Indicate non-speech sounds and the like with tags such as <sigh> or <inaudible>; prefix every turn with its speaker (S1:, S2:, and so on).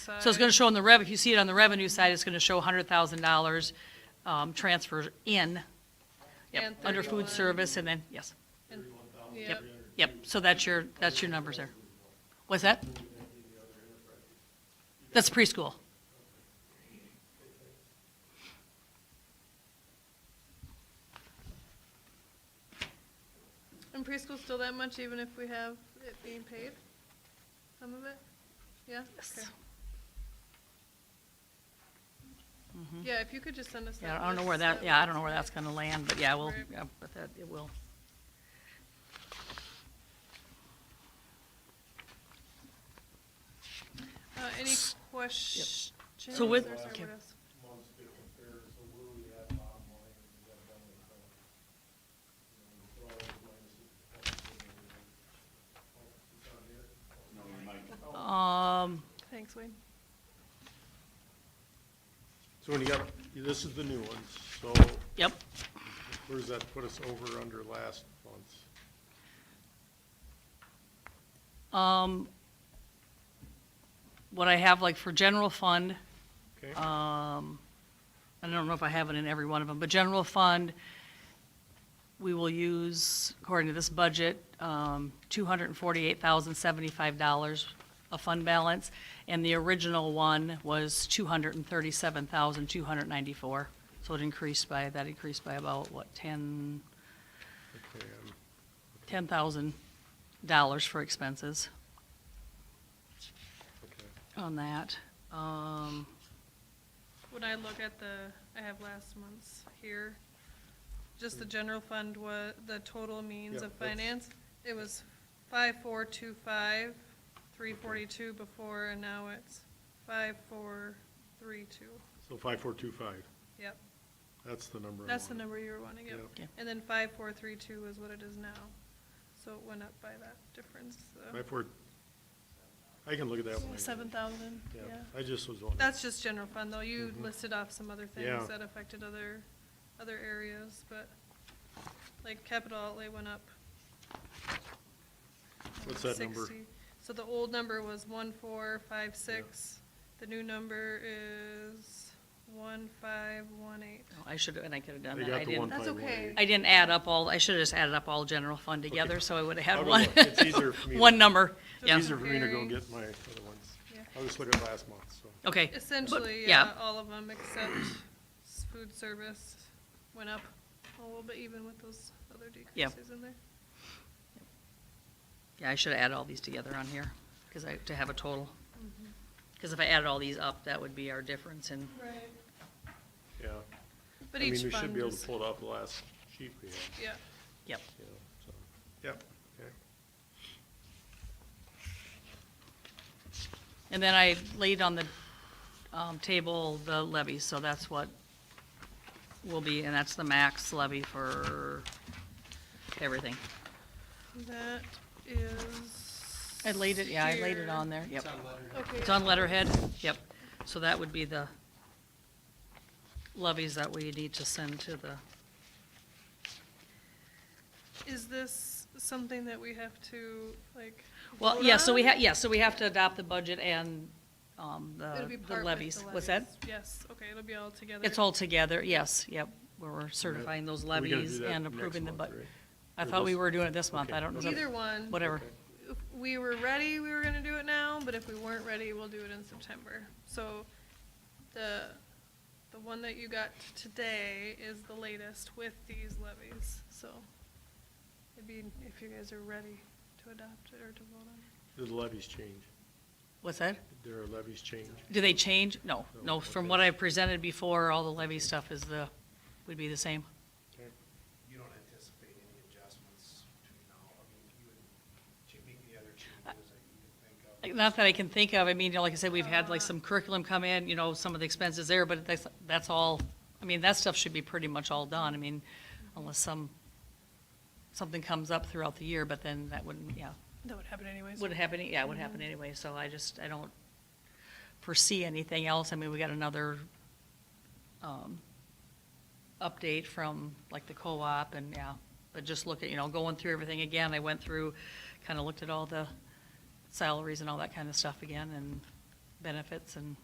S1: So it's gonna show on the rev, if you see it on the revenue side, it's gonna show hundred thousand dollars, um, transfer in, yep,
S2: And
S1: under
S2: 31.
S1: food service, and then, yes,
S2: Yep,
S1: yep, so that's your, that's your numbers there. What's that? That's preschool.
S2: and preschool's still that much even if we have it being paid? Some of it? Yeah? Okay. Yeah, if you could just send us that.
S1: Yeah, I don't know
S2: list,
S1: where that,
S2: would
S1: yeah, I
S2: be
S1: don't know where that's
S2: great.
S1: gonna land, but yeah, we'll,
S2: Right.
S1: yeah, but that, it will.
S2: Uh, any questions?
S1: So with-
S2: Or sorry,
S1: okay.
S2: what else?
S3: months to compare, so where we at bottom line, and we got down to, you know, we're all minus the Oh, it's on here?
S1: Um,
S2: Thanks, Wayne.
S3: So when you got, this is the new one, so
S1: yep,
S3: where does that put us over or under last month's?
S1: um, what I have, like, for general fund,
S3: Okay,
S1: Um, I don't know if I have it in every one of them, but general fund, we will use, according to this budget, um, $248,075 of fund balance, and the original one was 237,294. So it increased by, that increased by about, what, 10,
S3: okay, um,
S1: $10,000 for expenses
S3: okay.
S1: on that. Um,
S2: When I look at the, I have last month's here, just the general fund was, the total means
S3: Yeah,
S2: of
S3: that's-
S2: finance, it was five, four, two, five, three forty-two before, and now it's five, four, three, two.
S3: So five, four, two, five,
S2: Yep,
S3: that's the number I
S2: that's the
S3: wanted.
S2: number you were wanting, yep.
S3: Yeah.
S1: Okay.
S2: And then five, four, three, two is what it is now, so it went up by that difference,
S3: Five, four, I can look at that one. later.
S2: Seven thousand,
S3: Yeah,
S2: yeah.
S3: I just was wondering.
S2: That's just general fund, though. You
S3: Mhm.
S2: listed off some other
S3: Yeah.
S2: things that affected other, other areas, but like capital outlay went up.
S3: What's that number?
S2: 60. So the old number was one four five six. The new number is one five one eight.
S1: I should, have and I could have done
S3: They
S1: that. I
S3: got
S1: didn't.
S3: the one
S2: That's
S3: five one
S2: okay.
S3: eight.
S1: I didn't add up all, I should have just added up all general fund together, so I would have
S3: I'll
S1: had
S3: go
S1: one,
S3: look. It's
S2: <laughs>
S3: easier for me.
S1: one number.
S2: Yeah.
S3: Easier for me to go
S2: Comparing.
S3: get my other ones.
S2: Yeah.
S3: I'll just look at last month, so.
S1: Okay. But-
S2: Essentially, yeah,
S1: Yeah,
S2: all of them except s- food service went up a little bit even with those other
S1: Yeah.
S2: decreases in there.
S1: yeah, I should have added all these together on here, because I, to have a total. Mm-hmm. Because if I added all these up, that would be our difference in,
S2: Right.
S3: Yeah.
S2: But
S3: I mean,
S2: each
S3: we should
S2: fund
S3: be able
S2: is,
S3: to pull it off the last sheet we had,
S2: yeah.
S1: yep.
S3: you know, so. Yep, okay.
S1: And then I laid on the, um, table the levy, so that's what will be, and that's the max levy for everything.
S2: That is.
S1: I laid it, yeah, I laid it
S2: here.
S1: on there, yep. It's
S2: Okay,
S1: on letterhead, yep. So that would be the levies that we need to send to the,
S2: is this something that we have to, like?
S1: well,
S2: vote
S1: yeah, so we
S2: on?
S1: have, yeah, so we have to adopt the budget and, um,
S2: It'll
S1: the
S2: be
S1: the
S2: part with
S1: levies. What's that?
S2: levies. Yes, okay, it'll be all together.
S1: It's all together, yes, yep. We're certifying those
S3: We gotta do
S1: levies
S3: that
S1: and
S3: next
S1: approving the
S3: month,
S1: budget.
S3: right?
S1: I
S3: Or
S1: thought we
S3: this-
S1: were doing it this month,
S3: Okay.
S1: I don't know.
S2: Either one.
S1: Whatever,
S2: If we were ready, we were gonna do it now, but if we weren't ready, we'll do it in September. So the, the one that you got today is the latest with these levies, so it'd be if you guys are ready to adopt it or to vote on it.
S3: Did the levies change?
S1: what's that?
S3: Did our levies change?
S1: Do they change? No,
S3: No,
S1: no, from
S3: okay.
S1: what I presented before, all the levy stuff is the, would be the same.
S3: Okay.
S4: you don't anticipate any adjustments between now, I mean, you would, to make the other changes that you can think of?
S1: Like, Not that I can think of, I mean, you know, like I said, we've had like some curriculum come in, you know, some of the expenses there, but that's, that's all, I mean, that stuff should be pretty much all done, I mean, unless some, something comes up throughout the year, but then that wouldn't, yeah,
S2: That would happen anyways.
S1: wouldn't happen, yeah, it would happen anyway, so I just, I don't foresee anything else, I mean, we got another, um, update from like the co-op and, yeah, but just look at, you know, going through everything again, I went through, kinda looked at all the salaries and all that kinda stuff again, and benefits and